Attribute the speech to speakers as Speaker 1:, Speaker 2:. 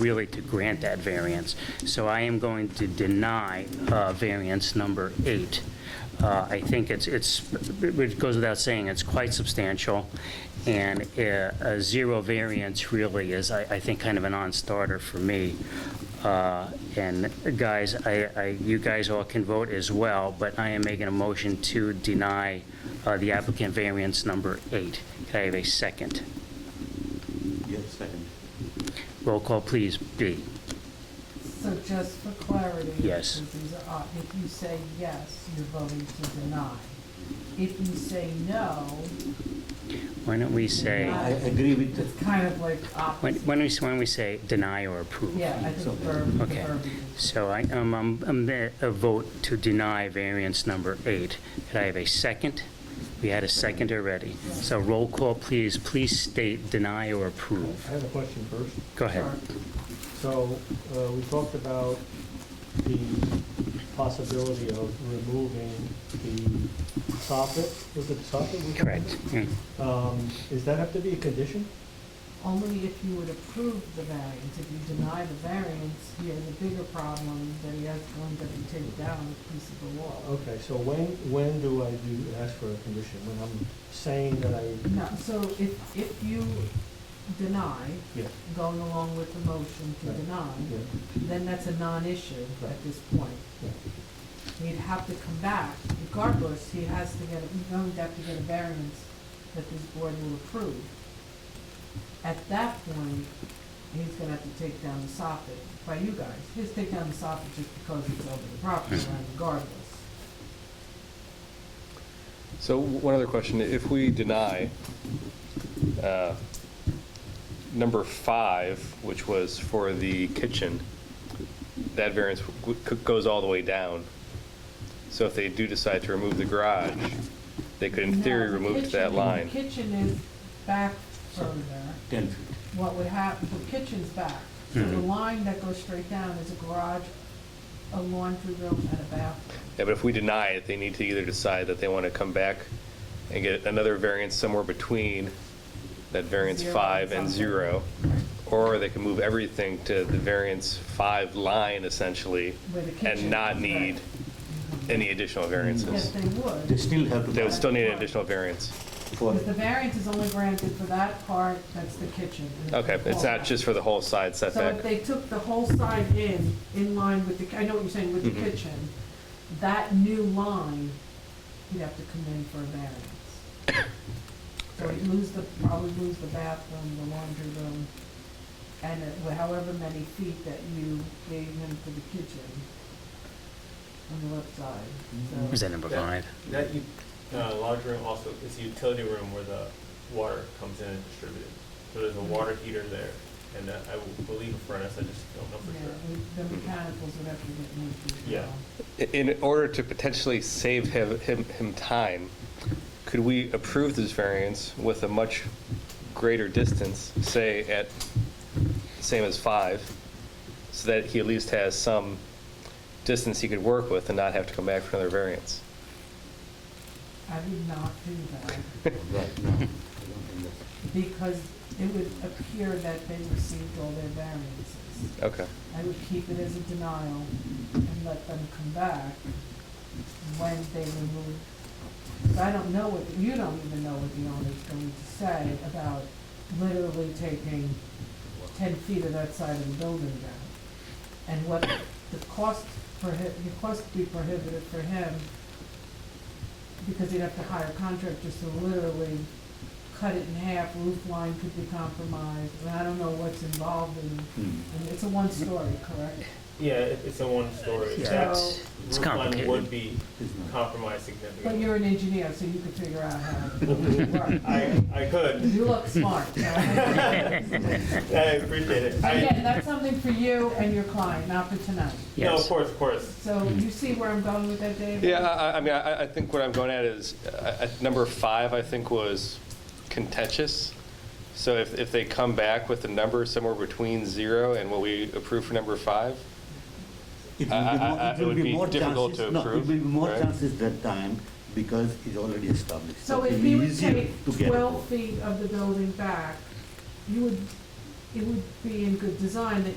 Speaker 1: really to grant that variance. So I am going to deny uh, variance number eight. Uh, I think it's, it's, it goes without saying, it's quite substantial, and uh, a zero variance really is, I, I think, kind of a non-starter for me. Uh, And guys, I, I, you guys all can vote as well, but I am making a motion to deny uh, the applicant variance number eight. Can I have a second?
Speaker 2: Yes, second.
Speaker 1: Roll call, please, B.
Speaker 3: So just for clarity.
Speaker 1: Yes.
Speaker 3: because these are odd, uh, If you say yes, you're voting to deny. If you say no,
Speaker 1: Why don't we say,
Speaker 2: I agree with the,
Speaker 3: it's kind of like
Speaker 1: why
Speaker 3: opposite.
Speaker 1: why don't we, why don't we say deny or approve?
Speaker 3: Yeah, I
Speaker 2: So-
Speaker 3: think verb, the
Speaker 1: Okay.
Speaker 3: verb. is-
Speaker 1: So I, um, um, um, the- a vote to deny variance number eight. Could I have a second? We had a second already. So roll call, please, please state deny or approve.
Speaker 4: I have a question first.
Speaker 1: Go ahead.
Speaker 3: Sure.
Speaker 4: So, uh, we talked about the possibility of removing the soffit, was it the soffit? we talked about?
Speaker 1: Correct. Mm.
Speaker 4: Um, Does that have to be a condition?
Speaker 3: Only if you would approve the variance. If you deny the variance, you have a bigger problem that he has going to have to take down a piece of the wall.
Speaker 4: Okay, so when, when do I do, ask for a condition? When I'm saying that I,
Speaker 3: No, so if, if you deny,
Speaker 4: yeah,
Speaker 3: going along with the motion to
Speaker 4: Right.
Speaker 3: deny,
Speaker 4: yeah,
Speaker 3: then that's a non-issue at
Speaker 4: Right.
Speaker 3: this point.
Speaker 4: yeah.
Speaker 3: he'd have to come back regardless, he has to get, he's going to have to get a variance that this board will approve. At that point, he's gonna have to take down the soffit by you guys. He'll take down the soffit just because it's over the property line regardless.
Speaker 5: So w- one other question, if we deny uh, number five, which was for the kitchen, that variance w- w- c- goes all the way down. So if they do decide to remove the garage, they could in
Speaker 3: Now,
Speaker 5: theory
Speaker 3: the
Speaker 5: remove to that
Speaker 3: kitchen-
Speaker 5: line.
Speaker 3: The kitchen is back further.
Speaker 2: 10 feet.
Speaker 3: What would happen, the kitchen's back. So the
Speaker 5: Mm-hmm.
Speaker 1: Mhm.
Speaker 3: line that goes straight down is a garage, a laundry room, and a bathroom.
Speaker 5: Yeah, but if we deny it, they need to either decide that they want to come back and get another variance somewhere between that variance
Speaker 3: Zero
Speaker 5: five
Speaker 3: and
Speaker 5: and
Speaker 3: something.
Speaker 5: zero, or they can move everything to the variance five line essentially,
Speaker 3: Where the kitchen
Speaker 5: and not
Speaker 3: is,
Speaker 5: need
Speaker 3: right.
Speaker 5: any additional
Speaker 3: Yes,
Speaker 5: variances.
Speaker 3: they would.
Speaker 2: They still have to.
Speaker 5: They would
Speaker 2: pass
Speaker 5: still need an additional variance.
Speaker 2: for-
Speaker 3: Because the variance is only granted for that part, that's the kitchen. and
Speaker 5: Okay, it's not just for the whole side
Speaker 3: So if
Speaker 5: setback.
Speaker 3: they took the whole side in, in line with the, I know what you're saying, with the
Speaker 5: Mhm.
Speaker 3: kitchen, that new line, you'd have to come in for a variance. So you'd lose the, probably lose the bathroom, the laundry room, and it- well, however many feet that you gave him for the kitchen on the left side,
Speaker 1: Was
Speaker 3: so.
Speaker 1: that number five?
Speaker 6: That u- uh, large room also is a utility room where the water comes in and distributed. So there's a water heater there, and uh, I will believe a furnace, I just don't know
Speaker 3: Yeah,
Speaker 6: for sure.
Speaker 3: we- the mechanicals would have to get moved as
Speaker 6: Yeah.
Speaker 3: well.
Speaker 5: In order to potentially save him, him, him time, could we approve this variance with a much greater distance, say at, same as five, so that he at least has some distance he could work with and not have to come back for another variance?
Speaker 3: I would not do that,
Speaker 2: Right, no, I don't think that's-
Speaker 3: because it would appear that they received all their variances.
Speaker 5: Okay.
Speaker 3: I would keep it as a denial and let them come back when they remove. But I don't know what, you don't even know what the owner's going to say about literally taking ten feet of that side of the building down. And what the cost prohib, the cost would be prohibitive for him, because he'd have to hire contractors to literally cut it in half, roof line could be compromised, and I don't know what's involved in
Speaker 2: Hmm.
Speaker 3: and It's a one-story, correct?
Speaker 6: Yeah, it- it's a one-story.
Speaker 1: Yeah,
Speaker 6: That
Speaker 1: it's- it's
Speaker 6: roof line
Speaker 1: complicated.
Speaker 6: Would be
Speaker 2: It's not.
Speaker 6: compromised
Speaker 3: But
Speaker 6: significantly.
Speaker 3: you're an engineer, so you could figure out how it would work.
Speaker 6: I, I could.
Speaker 3: You look smart. so-
Speaker 6: I appreciate it. I-
Speaker 3: Again, that's something for you and your client, not for tonight.
Speaker 6: No, of
Speaker 1: Yes.
Speaker 6: course, of course.
Speaker 3: So
Speaker 2: Mm.
Speaker 3: you see where I'm going with that, David?
Speaker 5: Yeah, I, I- I mean, I, I think what I'm going at is, uh, at number five, I think was contentious. So if, if they come back with a number somewhere between zero and what we approve for number five,
Speaker 2: It
Speaker 5: I- I-
Speaker 2: will be more-
Speaker 5: I- it would be
Speaker 2: more
Speaker 5: difficult
Speaker 2: chances-
Speaker 5: to
Speaker 2: No, it
Speaker 5: approve,
Speaker 2: will be more
Speaker 5: right?
Speaker 2: chances that time because it's already established.
Speaker 3: So
Speaker 2: it
Speaker 3: if
Speaker 2: will
Speaker 3: he
Speaker 2: be
Speaker 3: would
Speaker 2: easier
Speaker 3: take
Speaker 2: to get
Speaker 3: twelve
Speaker 2: approval.
Speaker 3: feet of the building back, you would, it would be in good design that you